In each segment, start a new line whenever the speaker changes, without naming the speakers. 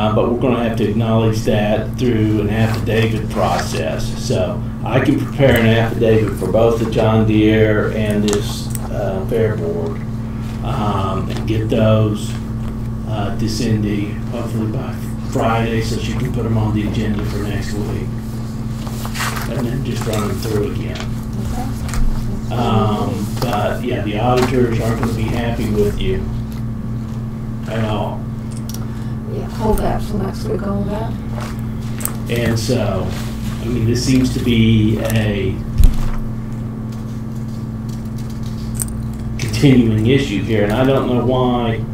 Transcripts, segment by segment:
Uh, But we're going to have to acknowledge that through an affidavit process. So I can prepare an affidavit for both the John Deere and this uh, Fair Board um, and get those uh, to Cindy hopefully by Friday so she can put them on the agenda for next week. And then just run them through again. Um, but yeah, the auditors aren't gonna be happy with you at all.
Yeah, hold that till next week on that.
And so, I mean, this seems to be a continuing issue here, and I don't know why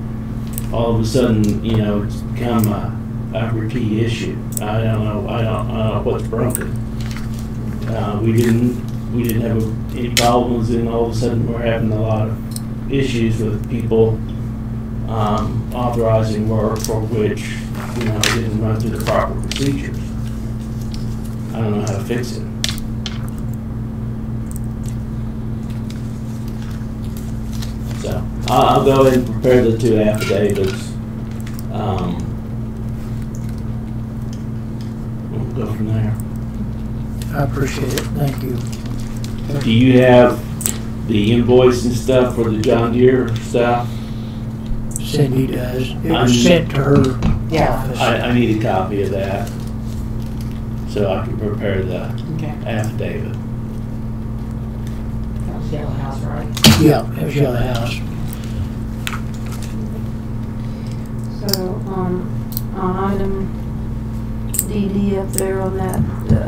all of a sudden, you know, it's become a, a repeat issue. I don't know, I don't, I don't know what's broken. Uh, we didn't, we didn't have any problems, and all of a sudden, we're having a lot of issues with people um, authorizing work for which, you know, it didn't run through the proper procedures. I don't know how to fix it. So, I'll, I'll go ahead and prepare the two affidavits. Um, We'll go from there.
I appreciate it, thank you.
Do you have the invoice and stuff for the John Deere stuff?
Cindy does. It
I'm-
was sent to her
Yeah,
I,
office.
I need a copy of that, so I can prepare the
okay.
affidavit.
That was Yellow House, right?
Yeah, it was Yellow House.
So, um, on item DD up there on that, uh,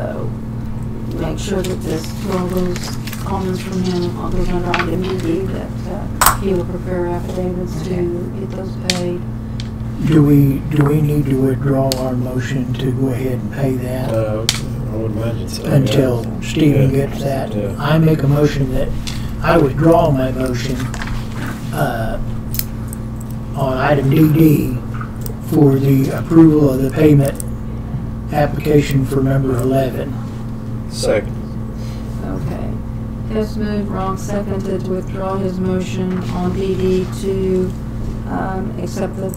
make sure that this, all those comments from him, all those under item DD, that, uh, he will prepare affidavits to get those paid.
Do we, do we need to withdraw our motion to go ahead and pay that
Uh, I would imagine so. yeah.
until Stephen
Yeah.
gets that?
Yeah.
I make a motion that, I withdraw my motion, uh, on item DD for the approval of the payment application for number 11.
Second.
Okay. Hess moved, Ron seconded to withdraw his motion on DD to um, accept the,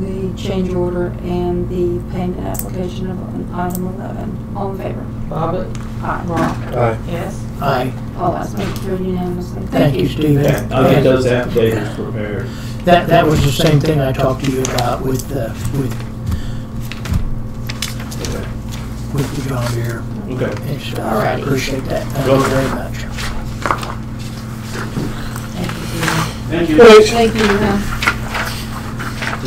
the change order and the payment application of an item 11. All in favor?
Bobbit,
Aye.
wrong,
Aye.
yes?
Aye.
All ayes, motion carried unanimously.
Thank you, Stephen.
Okay, I'll get those affidavits prepared.
That, that was the same thing I talked to you about with, uh, with, with the John Deere
Okay.
and stuff. I
Alrighty.
appreciate that. Thank you very much.
Thank you.
Wait,
Thank you.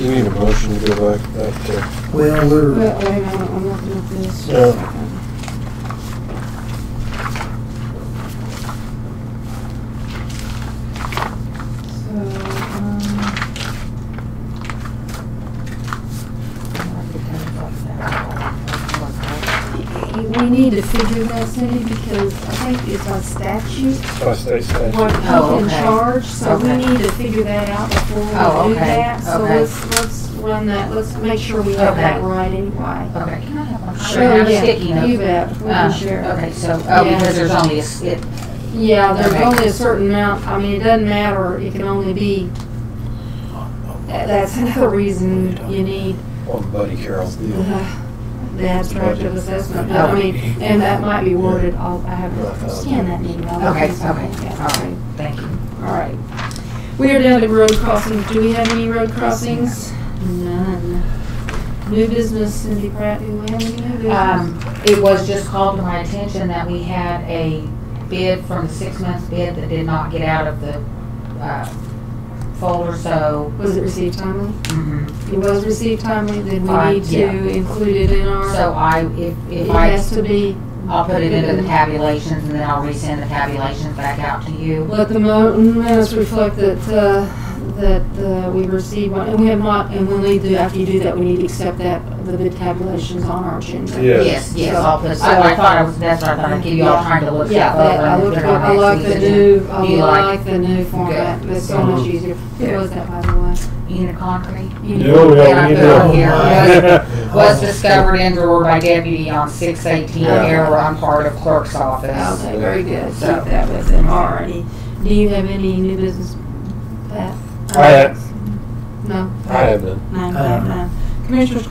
uh,
you need a motion to uh, go back, back to,
Well, we're,
Wait, wait a minute, I'm looking at this.
Yeah.
So, um, we need to figure that, Cindy, because I think it's on statute.
by state statute.
what
Oh,
people in
okay.
charge, so we
Okay.
need to figure that out before
Oh,
we do
okay,
that. So
okay.
let's, let's run that, let's make sure we have that
Okay.
right anyway.
Okay. Can I have one?
Sure,
Sure,
yeah,
I'm sticky
You
note.
bet, we can
Uh,
share.
Okay, so, oh,
Yeah.
because there's only a, s- it,
Yeah, there's
Okay.
only a certain amount, I mean, it doesn't matter, it can only be, that's another reason you need
On Oh, Buddy Carroll's deal.
Uh-huh.
the the abstract Uh, of assessment. But I mean, and that might be worded, I'll, I have to scan that email.
okay, okay, all
Yeah, okay.
right, thank you.
All right. We are down to road crossings. Do we have any road crossings? None. New business, Cindy Pratt, do we have any new business?
Um, it was just called to my attention that we had a bid from the six months bid that did not get out of the, uh, folder, so,
Was it received timely?
mhm.
It was received timely, then
Uh,
we need
yeah.
to include it in our,
so I, if,
it
if I,
has to be,
I'll put it into the tabulations and then I'll resend the tabulations back out to you.
let the mo- minutes reflect that, uh, that uh, we received one, and we have not, and we'll need to, after you do that, we need to accept that, the bid tabulations on our agenda.
Yeah.
Yes, yes, I'll put, so I thought I was, that's what I thought, I'd give you all time to look
Yeah,
stuff
that,
over.
I
and
look,
put it on
I
next
like the
season.
new, I
Do you like
like the new format, it's so much easier. Who
Yeah.
was that, by the way?
Uniconcrete?
You-
yeah, yeah. Was
Oh.
discovered indoor by deputy on six eighteen
Yeah.
error on part of clerk's office.
Okay, very good, keep that with them already. Do you have any new business, Pat?
I have-
No?
I have none.
No,
I have
no. Commissioners